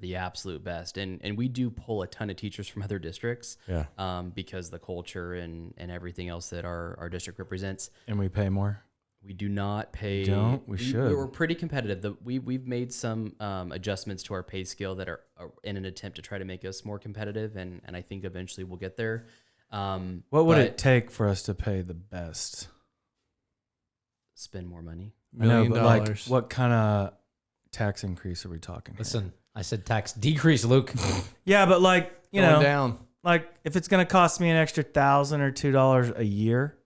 the absolute best. And and we do pull a ton of teachers from other districts Yeah. um, because the culture and, and everything else that our, our district represents. And we pay more. We do not pay. Don't? We should. We were pretty competitive. The, we we've made some um, adjustments to our pay scale that are, are in an attempt to try to make us more competitive, and and I think eventually we'll get there. Um, What would but it take for us to pay the best? spend more money? Million I know, but dollars. like, what kind of tax increase are we talking? here? Listen, I said tax decrease, Luke. Yeah, but like you Going know, down. like if it's gonna cost me an extra thousand or two dollars a year,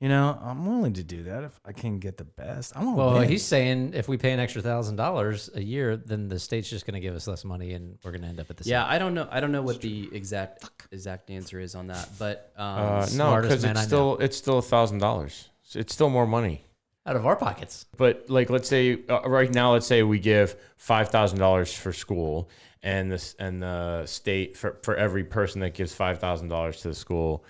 you know, I'm willing to do that if I can get the best. I want. Well, win. he's saying if we pay an extra thousand dollars a year, then the state's just going to give us less money, and we're going to end up at the Yeah, I don't know. I don't know what the exact exact answer is on that, but um, Uh, no, smartest because man it's I know. still it's still a thousand dollars. It's still more money. same. out of our pockets. But like, let's say uh, right now, let's say we give five thousand dollars for school, and this and the state for for every person that gives five thousand dollars to the school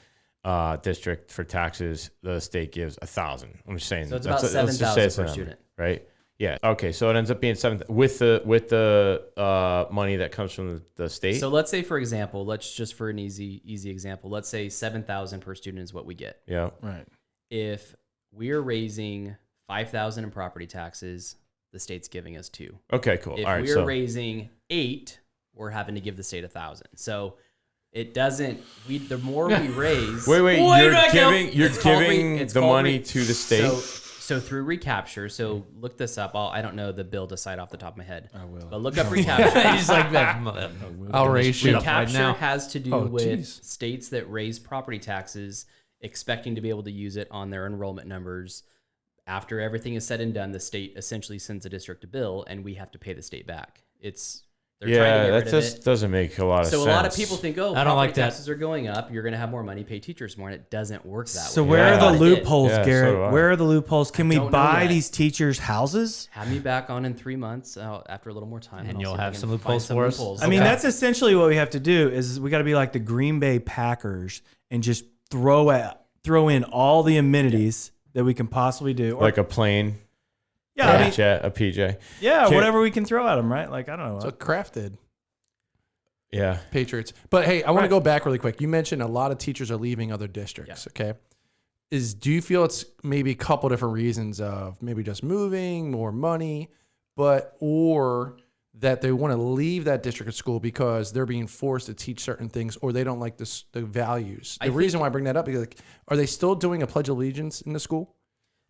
uh, district for taxes, the state gives a thousand. I'm just saying. So it's that's about a- let's just 7,000 say it's a per number, student. right? Yeah. Okay. So it ends up being seven with the with the uh, money that comes from the, the state. So let's say, for example, let's just for an easy easy example, let's say seven thousand per student is what we get. yeah. right. If we are raising five thousand in property taxes, the state's giving us two. Okay. Cool. If All right. we're So raising eight, we're having to give the state a thousand. So it doesn't. We the more we raise, wait, wait. Wait, you're no, giving you're It's called re- giving it's the called money re- to the state. So, so through recapture, so look this up. I'll, I don't know the bill to cite off the top of my head. I will. But look up recapture. he's like that. I'll raise you up right recapture now. has to do Oh, with geez. states that raise property taxes, expecting to be able to use it on their enrollment numbers. After everything is said and done, the state essentially sends a district a bill, and we have to pay the state back. It's they're trying to yeah, get that rid just of it. doesn't make a lot of So sense. a lot of people think, oh, I don't like property that. taxes are going up. You're going to have more money, pay teachers more, and it doesn't work that So way. where I Yeah. are thought the it did. loopholes, Yeah, so Garrett? do I. where are the loopholes? Can we don't know buy yet. these teachers houses? Have me back on in three months uh, after a little more time, And I'll you'll see if I have can some find loopholes for us? I mean, Okay. that's essentially what we have to do. Is we got to be like the Green Bay Packers and just throw at, throw in all the amenities that we can possibly do. Or, like a plane, yeah, a I mean, jet, a PJ. yeah, Can- whatever we can throw at them, right? Like I don't know. uh, So Kraft did Yeah. Patriots. But hey, I want Right. to go back really quick. You mentioned a lot of teachers are leaving other districts. Okay. Is do you feel it's maybe a couple different reasons of maybe just moving, more money, but or that they want to leave that district of school because they're being forced to teach certain things or they don't like the, s- the values. I The think- reason why I bring that up because like, are they still doing a pledge of allegiance in the school?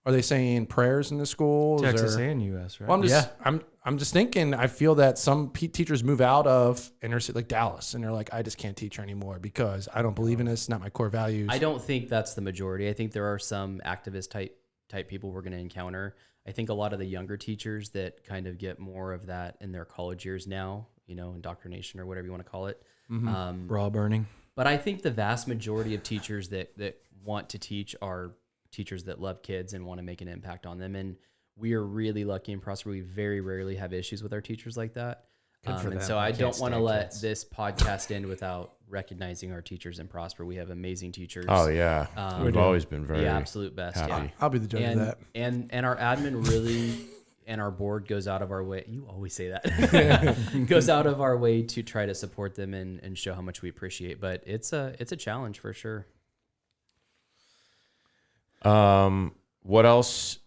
Are they saying prayers in the school? Texas and U.S. Right? Well, I'm just, I'm, I'm just thinking. I feel that some pe teachers move out of inner city, like Dallas, and they're like, I just can't teach here anymore because I don't believe in this. Not my core values. I don't think that's the majority. I think there are some activist type type people we're going to encounter. I think a lot of the younger teachers that kind of get more of that in their college years now, you know, indoctrination or whatever you want to call it. Um, raw burning. but I think the vast majority of teachers that that want to teach are teachers that love kids and want to make an impact on them. And we are really lucky and prosper. We very rarely have issues with our teachers like that. Um, and so I don't want to let this podcast end without recognizing our teachers in Prosper. We have amazing teachers. Oh yeah. Um, We've always been very. the absolute best. happy. I'll be the judge Yeah. And, of that. and and our admin really and our board goes out of our way. You always say that. goes out of our way to try to support them and, and show how much we appreciate. But it's a it's a challenge for sure. Um. What else?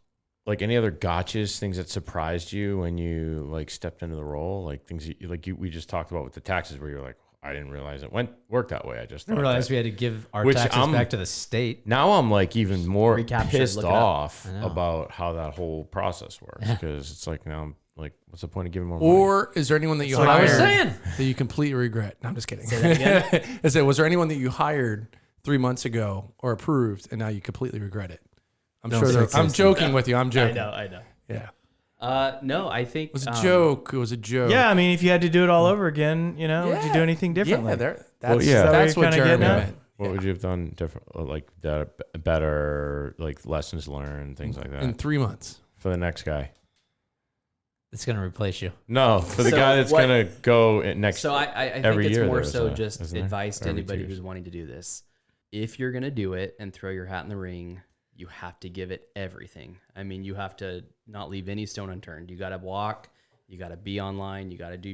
Like any other gotchas, things that surprised you when you like stepped into the role, like things you, like you we just talked about with the taxes, where you're like, I didn't realize it went worked that way. I just I thought realized that." we had to give our Which taxes I'm- back to the state. Now I'm like even more Recaptured, pissed look it up. off I know. about how that whole process works because it's like now I'm like, what's the point of giving more money? Or is there anyone that you What I was hired saying. that you completely regret? No, I'm just kidding. I said, was there anyone that you hired three months ago or approved and now you completely regret it? I'm sure. There, I'm joking with you. I'm joking. I know. Yeah, Uh, no, I think it was a um, joke. It was a joke. Yeah, I mean, if you had to do it all over again, you know, would you do anything differently? Yeah, there- that's, yeah. that's Is that what what you're kinda Jeremy getting at? meant. What would you have done different, uh, like that, b- better, like lessons learned, things Mm. like that, In three months. for the next guy? It's going to replace you. No, for the So guy that's what- gonna go in next. So I, I, I think every it's year more there's so a- just isn't there? advice to Every two anybody years. who's wanting to do this. If you're gonna do it and throw your hat in the ring, you have to give it everything. I mean, you have to not leave any stone unturned. You got to walk. You got to be online. You got to do